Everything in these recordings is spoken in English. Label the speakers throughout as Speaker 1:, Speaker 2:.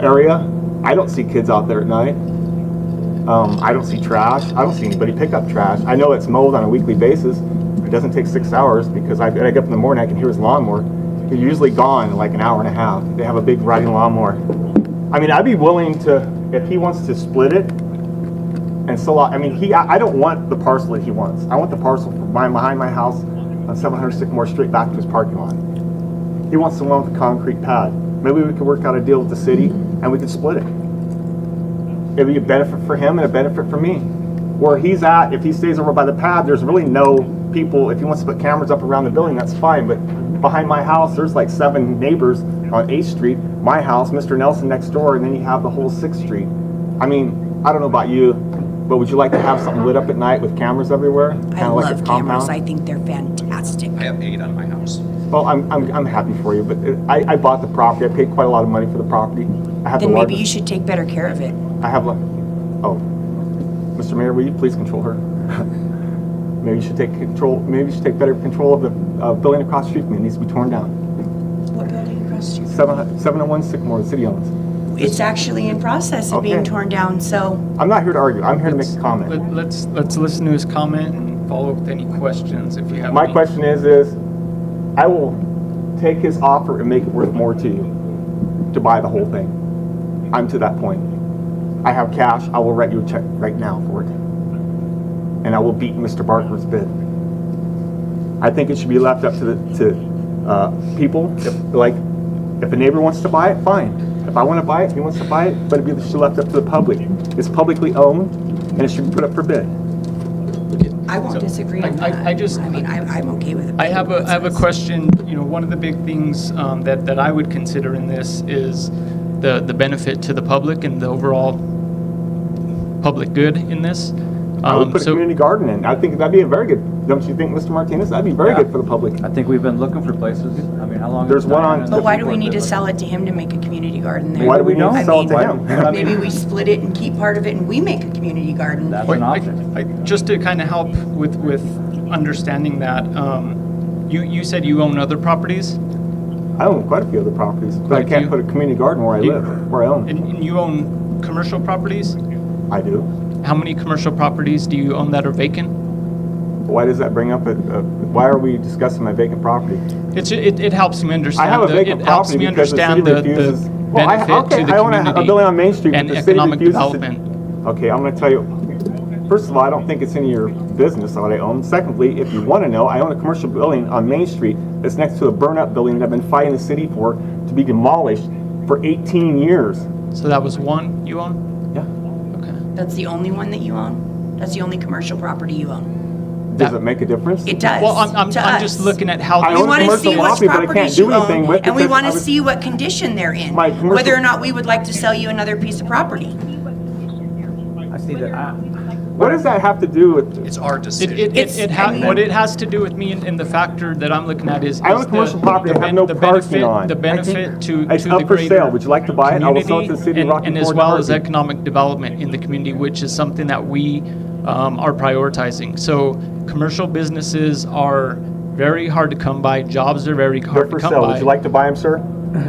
Speaker 1: area, I don't see kids out there at night. Um, I don't see trash. I don't see anybody pick up trash. I know it's mowed on a weekly basis. It doesn't take six hours because I, I get up in the morning, I can hear his lawnmower. They're usually gone in like an hour and a half. They have a big riding lawnmower. I mean, I'd be willing to, if he wants to split it and sell out, I mean, he, I, I don't want the parcel that he wants. I want the parcel from my- behind my house on 700 Sycamore Street back to his parking lot. He wants the one with the concrete pad. Maybe we could work out a deal with the city and we could split it it'd be a benefit for him and a benefit for me. Where he's at, if he stays over by the pad, there's really no people. If he wants to put cameras up around the building, that's fine. But behind my house, there's like seven neighbors on 8th Street, my house, Mr. Nelson next door, and then you have the whole 6th Street. I mean, I don't know about you, but would you like to have something lit up at night with cameras everywhere?
Speaker 2: I
Speaker 1: Kinda like a
Speaker 2: love cameras.
Speaker 1: compound?
Speaker 2: I think they're fantastic.
Speaker 3: I have eight on my house.
Speaker 1: Well, I'm, I'm, I'm happy for you, but it- I, I bought the property. I paid quite a lot of money for the property. I have the
Speaker 2: Then maybe you
Speaker 1: largest,
Speaker 2: should take better care of it.
Speaker 1: I have, a- oh, Mr. Mayor, will you please control her? Maybe you should take control, maybe you should take better control of the uh, building across the street from you. It needs to be torn down.
Speaker 2: What building across the street?
Speaker 1: Seven hun- 701 Sycamore, the city owns.
Speaker 2: It's actually in process of being
Speaker 1: Okay.
Speaker 2: torn down, so
Speaker 1: I'm not here to argue. I'm here to make a comment.
Speaker 4: Let- Let's, let's listen to his comment and follow up with any questions if you have
Speaker 1: My
Speaker 4: any.
Speaker 1: question is, is I will take his offer and make it worth more to you to buy the whole thing. I'm to that point. I have cash. I will write you a check right now for it. And I will beat Mr. Barker's bid. I think it should be left up to the, to, uh, people. If, like, if a neighbor wants to buy it, fine. If I wanna buy it, he wants to buy it, but it should be left up to the public. It's publicly owned and it should be put up for bid.
Speaker 2: I won't disagree on
Speaker 4: I- I-
Speaker 2: that.
Speaker 4: I just-
Speaker 2: I mean, I'm, I'm okay with it.
Speaker 4: I have a, I have a question, you know, one of the big things um, that, that I would consider in this is the, the benefit to the public and the overall public good in this.
Speaker 1: I would
Speaker 4: Um,
Speaker 1: put a
Speaker 4: so-
Speaker 1: community garden in. I think that'd be a very good, don't you think, Mr. Martinez? That'd be very
Speaker 5: Yeah.
Speaker 1: good for the public.
Speaker 5: I think we've been looking for places. I mean, how long?
Speaker 1: There's
Speaker 5: has
Speaker 1: one
Speaker 5: Diana
Speaker 1: on-
Speaker 2: But why do we
Speaker 5: been
Speaker 2: need to
Speaker 5: looking?
Speaker 2: sell it to him to make a community garden there?
Speaker 1: Why do we need
Speaker 2: I
Speaker 1: to sell it to
Speaker 2: mean,
Speaker 1: him?
Speaker 5: But I mean-
Speaker 2: Maybe we split it and keep part of it and we make a community garden.
Speaker 5: That's
Speaker 4: Wait,
Speaker 5: an
Speaker 4: I-
Speaker 5: option.
Speaker 4: I- Just to kind of help with, with understanding that, um, you, you said you own other properties?
Speaker 1: I own quite a few other properties, but I
Speaker 4: Quite a
Speaker 1: can't
Speaker 4: few.
Speaker 1: put a community garden where I
Speaker 4: You-
Speaker 1: live, where I own.
Speaker 4: And and you own commercial properties?
Speaker 1: I do.
Speaker 4: How many commercial properties do you own that are vacant?
Speaker 1: Why does that bring up, a- a- why are we discussing my vacant property?
Speaker 4: It's, it, it helps me
Speaker 1: I
Speaker 4: understand.
Speaker 1: have a
Speaker 4: the-
Speaker 1: vacant
Speaker 4: It helps
Speaker 1: property
Speaker 4: me
Speaker 1: because the city
Speaker 4: understand the, the
Speaker 1: refuses. Well, I-
Speaker 4: benefit
Speaker 1: okay,
Speaker 4: to the
Speaker 1: I own a- a
Speaker 4: community
Speaker 1: building on Main Street, but
Speaker 4: and
Speaker 1: the city
Speaker 4: economic
Speaker 1: refuses to-
Speaker 4: development.
Speaker 1: Okay, I'm gonna tell you, first of all, I don't think it's any of your business what I own. Secondly, if you wanna know, I own a commercial building on Main Street that's next to a burn-up building that I've been fighting the city for to be demolished for 18 years.
Speaker 4: So that was one you own?
Speaker 1: Yeah.
Speaker 4: Okay.
Speaker 2: That's the only one that you own? That's the only commercial property you own?
Speaker 1: Does
Speaker 4: That-
Speaker 1: it make a difference?
Speaker 2: It does.
Speaker 4: Well, I'm, I'm,
Speaker 2: to
Speaker 4: I'm just
Speaker 2: us.
Speaker 4: looking at how.
Speaker 1: I
Speaker 4: these
Speaker 2: We
Speaker 1: own
Speaker 2: want to
Speaker 1: commercial
Speaker 2: see what
Speaker 1: property, but I can't
Speaker 2: properties
Speaker 1: do
Speaker 2: you
Speaker 1: anything
Speaker 2: own,
Speaker 1: with
Speaker 2: and we
Speaker 1: because
Speaker 2: want
Speaker 1: I
Speaker 2: to
Speaker 1: was-
Speaker 2: see what condition they're in.
Speaker 1: My commercial-
Speaker 2: Whether or not we would like to sell you another piece of property.
Speaker 5: I see that. I-
Speaker 1: What does that have to do with,
Speaker 3: It's our
Speaker 4: It,
Speaker 3: decision.
Speaker 4: it, it,
Speaker 2: It's-
Speaker 4: it
Speaker 2: I
Speaker 4: ha-
Speaker 2: mean-
Speaker 4: what it has to do with me and, and the factor that I'm looking at is.
Speaker 1: I own
Speaker 4: is
Speaker 1: a
Speaker 4: the-
Speaker 1: commercial property
Speaker 4: the
Speaker 1: I have
Speaker 4: ben-
Speaker 1: no
Speaker 4: the
Speaker 1: parking
Speaker 4: benefit-
Speaker 1: on.
Speaker 4: The
Speaker 1: I
Speaker 4: benefit to, to the greater.
Speaker 1: it's up for sale, would you like to buy it? I will sell it to the city
Speaker 4: community
Speaker 1: of
Speaker 4: and,
Speaker 1: Rocky
Speaker 4: and as
Speaker 1: Ford
Speaker 4: well as
Speaker 1: Garden.
Speaker 4: economic development in the community, which is something that we um, are prioritizing. So commercial businesses are very hard to come by. Jobs are very
Speaker 1: They're
Speaker 4: hard to
Speaker 1: for
Speaker 4: come
Speaker 1: sale,
Speaker 4: by.
Speaker 1: would you like to buy them, sir?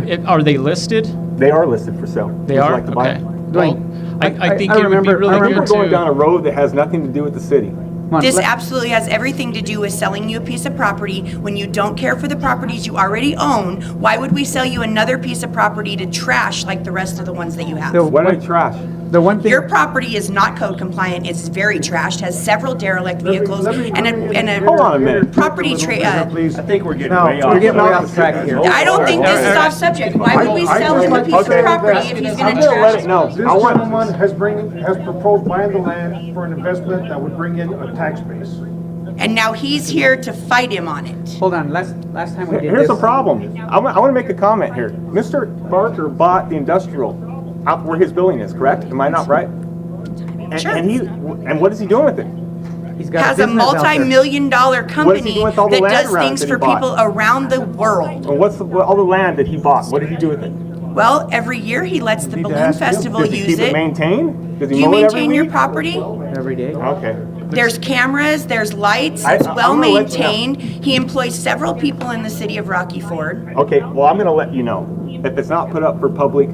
Speaker 4: It- Are they listed?
Speaker 1: They are listed for sale. Would
Speaker 4: They
Speaker 1: you
Speaker 4: are?
Speaker 1: like to buy
Speaker 4: Okay.
Speaker 1: 'em?
Speaker 4: Well, I, I think it would be really
Speaker 1: I remember
Speaker 4: good
Speaker 1: going down a
Speaker 4: to.
Speaker 1: road that has nothing to do with the city.
Speaker 5: Come on,
Speaker 2: This
Speaker 5: let-
Speaker 2: absolutely has everything to do with selling you a piece of property when you don't care for the properties you already own. Why would we sell you another piece of property to trash like the rest of the ones that you have?
Speaker 5: No.
Speaker 1: What did I trash?
Speaker 5: The one thing,
Speaker 2: Your property is not code compliant, it's very trashed, has several derelict vehicles
Speaker 6: let me-
Speaker 2: and a, and a.
Speaker 1: Hold on a minute.
Speaker 2: Property tra, uh,
Speaker 6: Please. I think we're getting
Speaker 5: no, we're getting way off track here.
Speaker 2: I don't think this is off subject. Why would we
Speaker 6: I- I
Speaker 2: sell him a
Speaker 6: just-
Speaker 2: piece of
Speaker 1: okay.
Speaker 2: property if he's
Speaker 1: I'm
Speaker 2: gonna
Speaker 1: gonna let
Speaker 2: trash
Speaker 1: it
Speaker 2: it?
Speaker 1: know.
Speaker 6: This
Speaker 1: I want-
Speaker 6: gentleman has bring, has proposed buying the land for an investment that would bring in a tax base.
Speaker 2: And now he's here to fight him on it.
Speaker 5: Hold on, last, last time we did this.
Speaker 1: Here's the problem. I want to make a comment here. Mr. Barker bought the industrial out where his building is, correct? Am I not right? And-
Speaker 2: Sure.
Speaker 1: And he, and what is he doing with it?
Speaker 5: He's got
Speaker 2: Has a
Speaker 5: business out there.
Speaker 2: multi-million dollar
Speaker 1: doing
Speaker 2: company
Speaker 1: with all the
Speaker 2: that
Speaker 1: land
Speaker 2: does
Speaker 1: around
Speaker 2: things
Speaker 1: that he
Speaker 2: for
Speaker 1: bought?
Speaker 2: people around the world.
Speaker 1: And what's the, what- all the land that he bought? What did he do with it?
Speaker 2: Well, every year he lets the
Speaker 5: Need to
Speaker 2: balloon
Speaker 5: ask him.
Speaker 2: festival
Speaker 1: Does he
Speaker 2: use
Speaker 1: keep it
Speaker 2: it.
Speaker 1: maintained? Does
Speaker 2: Do
Speaker 1: he
Speaker 2: you
Speaker 1: mow it every
Speaker 2: maintain your
Speaker 1: week?
Speaker 2: property?
Speaker 5: Every day.
Speaker 1: Okay.
Speaker 2: There's cameras, there's lights,
Speaker 1: I-
Speaker 2: it's
Speaker 1: I'm
Speaker 2: well
Speaker 1: gonna let you know.
Speaker 2: maintained. He employs several people in the city of Rocky Ford.
Speaker 1: Okay, well, I'm gonna let you know. If it's not put up for public